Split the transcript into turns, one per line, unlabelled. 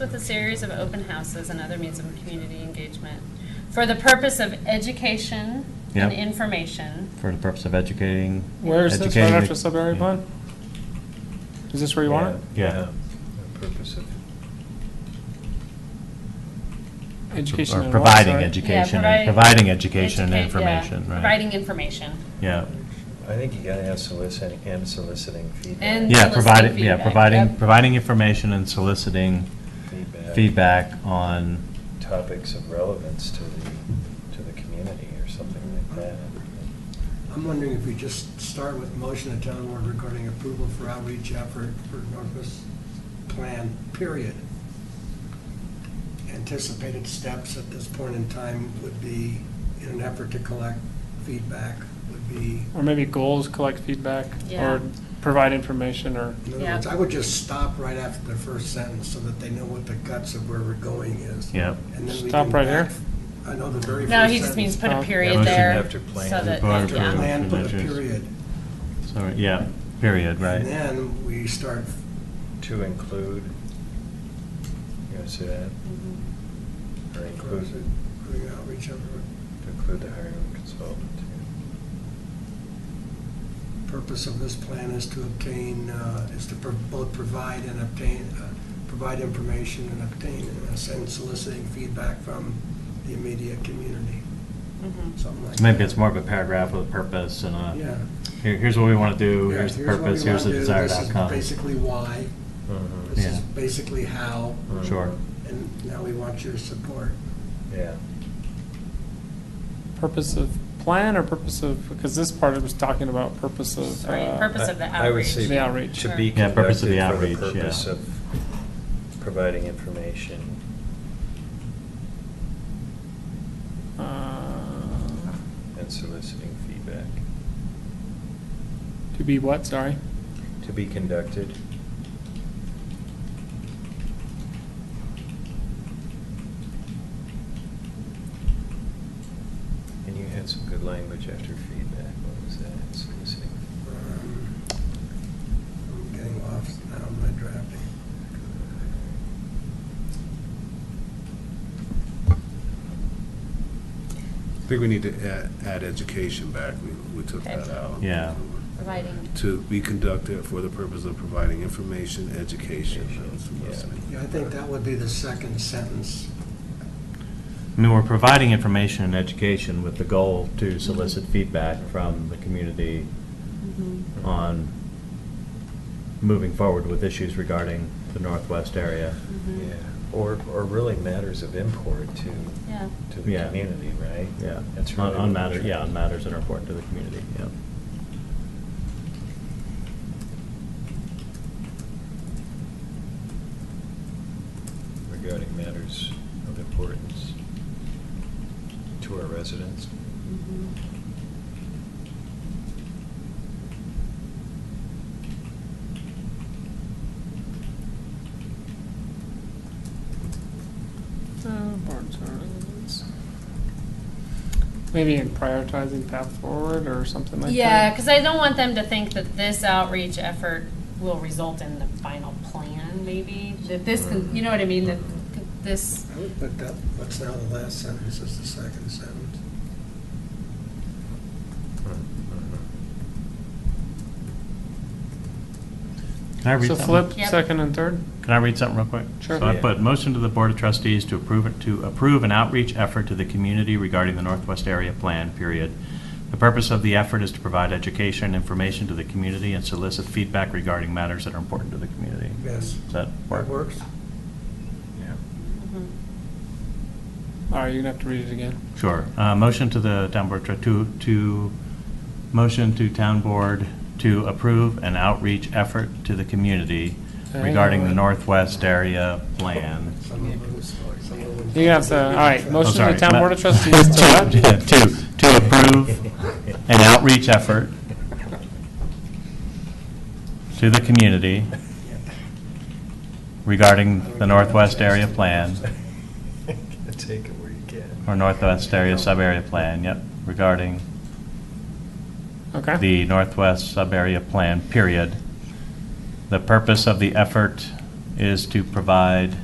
With a series of open houses and other means of community engagement for the purpose of education and
Yep.
information.
for the purpose of educating.
Where is this, right
educating the-
after subdivision plan? Is this where you want it?
Yeah.
The Purpose of,
Education
Or
and what,
providing
sorry?
education,
Yeah,
and-
provi-
providing education and
educate- yeah,
information, right?
Providing information.
Yeah,
I think you gotta have soliciting, and soliciting feedback.
And-
yeah,
Soliciting
providing, yeah,
feedback,
providing,
yep.
providing information and soliciting
Feedback.
feedback on,
Topics of relevance to the, to the community or something like that.
I'm wondering if we just start with motion of town board regarding approval for outreach effort for Northwest Plan, period. Anticipated steps at this point in time would be, in an effort to collect feedback, would be,
Or maybe goals, collect feedback,
Yeah.
or provide information, or,
in other
Yeah.
words, I would just stop right after the first sentence so that they know what the guts of where we're going is.
yeah,
And then we
Stop
can
right here.
back- I know the very first
No,
sentence.
he just means put
Oh.
a period
Motion
there.
after plan.
So that,
Bar
yeah.
approval.
Plan, put a
Measures.
period.
sorry, yeah, period,
And
right?
then we start
To include, you know, so that, or include,
Doing outreach effort.
to include the hiring of a consultant.
Purpose of this plan is to obtain, uh, is to pro- both provide and obtain, uh, provide information and obtain, in a sense, soliciting feedback from the immediate community,
Mhm.
something like that.
So maybe it's more of a paragraph with a purpose and a,
Yeah.
here, here's what we want to do,
Yeah,
here's the
what we
purpose, here's the
wanna do,
desired
this is
outcome.
Basically why,
Mhm.
this is
Yeah.
basically how,
Mhm.
Sure.
and now we want your support.
Yeah.
purpose of plan, or purpose of, because this part was talking about purpose of.
Sorry,
uh,
purpose of the
I- I would
outreach.
say
The outreach.
To be
Yeah,
conducted
purpose
for
of the
the
outreach, yeah.
purpose of providing information.
uh,
Mm-hmm.
and soliciting feedback.
To be what, sorry?
To be conducted. And you had some good language after feedback. What was that? Soliciting.
Um, I'm getting off now in my drafting.
I think we need to add, add education back, we, we took that out.
Yeah.
Providing.
To be conducted for the purpose of providing information, education, that was the lesson.
Yeah, I think that would be the second sentence.
I mean, we're providing information and education with the goal to solicit feedback from the community
Mm-hmm.
on moving forward with issues regarding the Northwest area.
Mm-hmm.
Yeah, or, or really matters of import to,
Yeah.
to the
Yeah.
community, right?
Yeah,
That's
on,
really
on
what we're
matters,
trying-
yeah, on matters that are important to the community, yeah.
Regarding matters of importance to our residents.
Uh,
Maybe in prioritizing path forward or something like that.
Yeah, because I don't want them to think that this outreach effort will result in the final plan, maybe, that this, can- you know what I mean, that this,
I would put that, what's now the last sentence is the second sentence.
Mm-hmm.
Mm-hmm.
Can I read
So
something?
flip,
Yep.
second and third?
Can I read something real quick?
Sure.
So I
Yeah.
put motion to the Board of Trustees to approve, it- to approve an outreach effort to the community regarding the Northwest Area Plan, period. The purpose of the effort is to provide education and information to the community and solicit feedback regarding matters that are important to the community.
Yes.
Does that
That
work?
works?
Yeah.
mm-hmm.
All right, you're gonna have to read it again.
Sure. Uh, Motion to the town board, tr- to, to, motion to town board to approve an outreach effort to the community regarding the Northwest Area Plan.
Some of them, some of them-
You have to, all right,
I'm
motion to
sorry,
the town
ma-
board of trustees to
To,
what?
to approve an outreach effort to the community regarding the Northwest Area Plan,
Take it where you can.
or Northwest Area Sub-Area Plan, yep, regarding
Okay,
the Northwest Sub-Area Plan, period. The purpose of the effort is to provide